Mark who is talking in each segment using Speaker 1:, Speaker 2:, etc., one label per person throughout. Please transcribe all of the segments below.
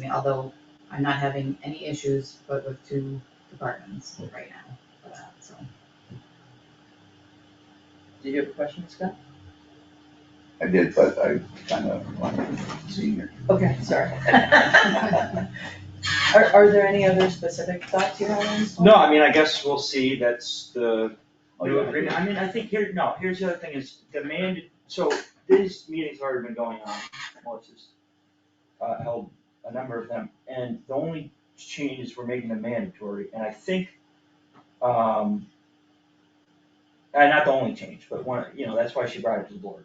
Speaker 1: me, although I'm not having any issues, but with two departments right now, for that, so.
Speaker 2: Did you have a question, Scott?
Speaker 3: I did, but I kind of wanted to see here.
Speaker 2: Okay, sorry. Are, are there any other specific thoughts you have on this one?
Speaker 4: No, I mean, I guess we'll see, that's the
Speaker 3: Oh,
Speaker 4: new
Speaker 3: yeah.
Speaker 4: agreement, I mean, I think here, no, here's the other thing is, the man, so these meetings have already been going on, Melissa's uh, held a number of them, and the only changes we're making them mandatory, and I think, um, uh, not the only change, but one, you know, that's why she brought it to the board.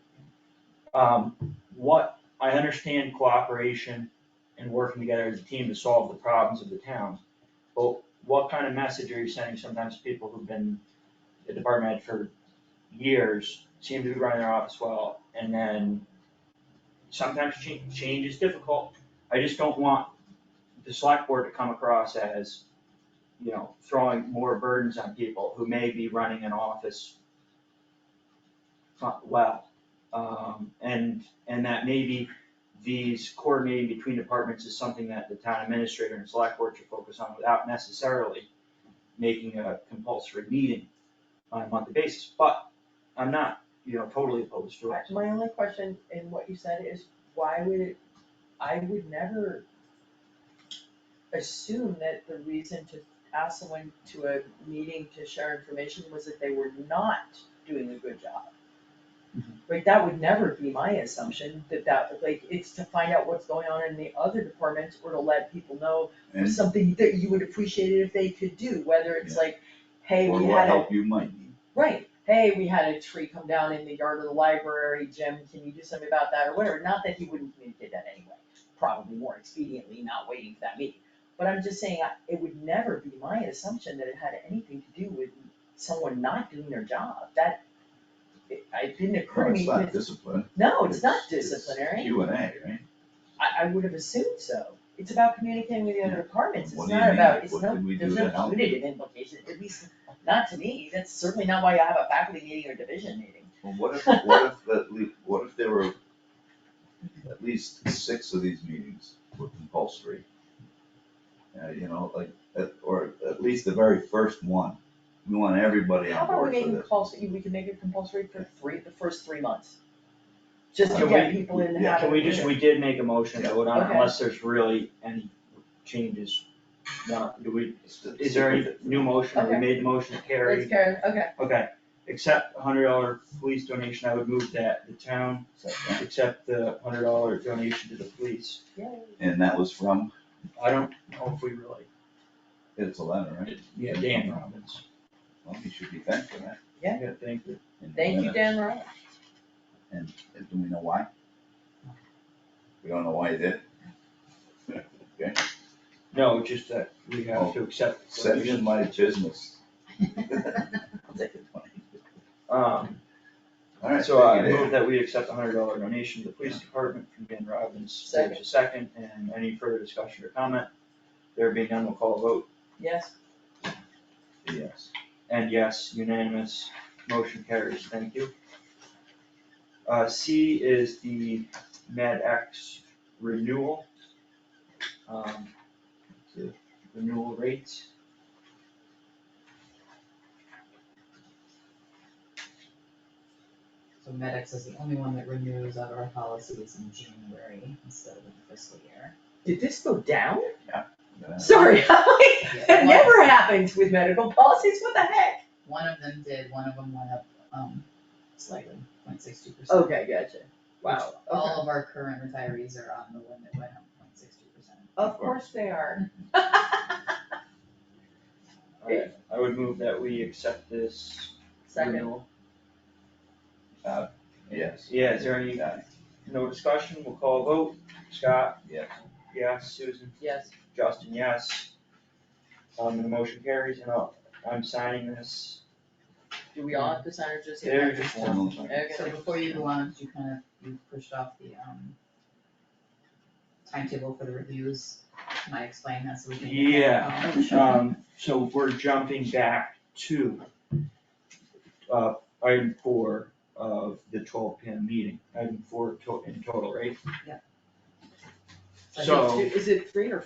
Speaker 4: Um, what, I understand cooperation and working together as a team to solve the problems of the towns, but what kind of message are you sending sometimes to people who've been a department head for years, seem to be running their office well, and then sometimes change, change is difficult. I just don't want the select board to come across as, you know, throwing more burdens on people who may be running an office not well. Um, and, and that maybe these coordinating between departments is something that the town administrator and select board should focus on without necessarily making a compulsory meeting on a monthly basis, but I'm not, you know, totally opposed to it.
Speaker 2: My only question in what you said is why would it, I would never assume that the reason to ask someone to a meeting to share information was that they were not doing a good job. Like, that would never be my assumption, that that, like, it's to find out what's going on in the other departments or to let people know
Speaker 3: And
Speaker 2: something that you would appreciate it if they could do, whether it's like, hey,
Speaker 3: for
Speaker 2: we
Speaker 3: what
Speaker 2: had a
Speaker 3: help you might need.
Speaker 2: Right, hey, we had a tree come down in the yard of the library, Jim, can you do something about that or whatever, not that he wouldn't communicate that anyway, probably more expediently, not waiting for that meeting. But I'm just saying, I- it would never be my assumption that it had anything to do with someone not doing their job, that, it, it didn't occur to
Speaker 3: No,
Speaker 2: me,
Speaker 3: It's not
Speaker 2: that-
Speaker 3: discipline.
Speaker 2: no, it's not
Speaker 3: it's
Speaker 2: disciplinary,
Speaker 3: Q and A, right?
Speaker 2: I, I would have assumed so. It's about communicating with the other departments, it's
Speaker 3: What do you
Speaker 2: not
Speaker 3: mean?
Speaker 2: about, it's
Speaker 3: What
Speaker 2: no,
Speaker 3: did we do
Speaker 2: there's
Speaker 3: to
Speaker 2: no
Speaker 3: help?
Speaker 2: punitive implication, at least, not to me, that's certainly not why you have a faculty meeting or division meeting.
Speaker 3: Well, what if, what if, the le- what if there were at least six of these meetings were compulsory? Uh, you know, like, at- or at least the very first one, we want everybody
Speaker 2: How
Speaker 3: on
Speaker 2: about we
Speaker 3: board
Speaker 2: make
Speaker 3: for
Speaker 2: it
Speaker 3: this.
Speaker 2: compulsory, we can make it compulsory for three, the first three months. Just to
Speaker 4: Can
Speaker 2: get
Speaker 4: we-
Speaker 2: people in the
Speaker 3: yeah,
Speaker 2: habit.
Speaker 4: Can
Speaker 2: of
Speaker 4: we just,
Speaker 2: doing
Speaker 4: we did make a motion to vote on it
Speaker 2: Okay.
Speaker 4: unless there's really any changes. No, do we,
Speaker 3: It's the-
Speaker 4: is there any new motion, or we
Speaker 2: Okay.
Speaker 4: made the motion to
Speaker 2: it.
Speaker 4: carry?
Speaker 2: Let's carry, okay,
Speaker 4: Okay, accept a hundred dollar police donation, I would move that the town accept the hundred dollar donation to the police.
Speaker 2: yay.
Speaker 3: And that was from,
Speaker 4: I don't know if we really,
Speaker 3: it's a letter, right?
Speaker 4: yeah, Dan Robbins,
Speaker 3: Well, you should be thankful for that.
Speaker 4: I gotta thank you.
Speaker 3: in the
Speaker 2: Thank you,
Speaker 3: minutes.
Speaker 2: Dan Rollins.
Speaker 3: And and do we know why? We don't know why he did. Okay,
Speaker 4: No, just that we have to accept. the
Speaker 3: send in
Speaker 4: donation.
Speaker 3: my business. I'll take it, twenty.
Speaker 4: Um,
Speaker 3: All right,
Speaker 4: so I
Speaker 3: thank you,
Speaker 4: move
Speaker 3: Dave.
Speaker 4: that we accept a hundred dollar donation to the police department from Dan Robbins, there's a second, and any further discussion or comment? There being none, we'll call a vote,
Speaker 2: Yes,
Speaker 3: Yes,
Speaker 4: and yes, unanimous, motion carries, thank you. Uh, C is the Med X renewal. Um, the renewal rates.
Speaker 1: So Medex is the only one that renews out of our policies in January instead of the fiscal year.
Speaker 2: did this go down?
Speaker 3: yeah.
Speaker 2: Sorry, that
Speaker 1: one-
Speaker 2: never happens with medical policies, what the heck?
Speaker 1: One of them did, one of them went up, um, slightly, 062 percent.
Speaker 2: Okay, gotcha, wow, okay.
Speaker 1: All of our current retirees are on the one that went up 062 percent.
Speaker 2: Of course they are.
Speaker 4: Alright, Uh, I would move that we accept this
Speaker 3: Mm-hmm.
Speaker 2: Second,
Speaker 4: renewal.
Speaker 3: yes,
Speaker 4: Yeah, is there any, uh, no discussion, we'll call a vote, Scott,
Speaker 3: yes.
Speaker 4: yes, Susan,
Speaker 2: yes,
Speaker 4: Justin, yes. Um, and the motion carries, and I'll, I'm signing this,
Speaker 2: do we all have to sign or just?
Speaker 4: there you just one.
Speaker 1: So
Speaker 2: Okay,
Speaker 1: before you go on, you kind of, you pushed off the, um, timetable for the reviews, can I explain that so we can?
Speaker 4: Yeah.
Speaker 1: Um,
Speaker 4: Um, so we're jumping back to, uh, item four of the twelve PM meeting, item four to- in total, right?
Speaker 1: Yeah.
Speaker 2: I think
Speaker 4: So-
Speaker 2: two- Is it three or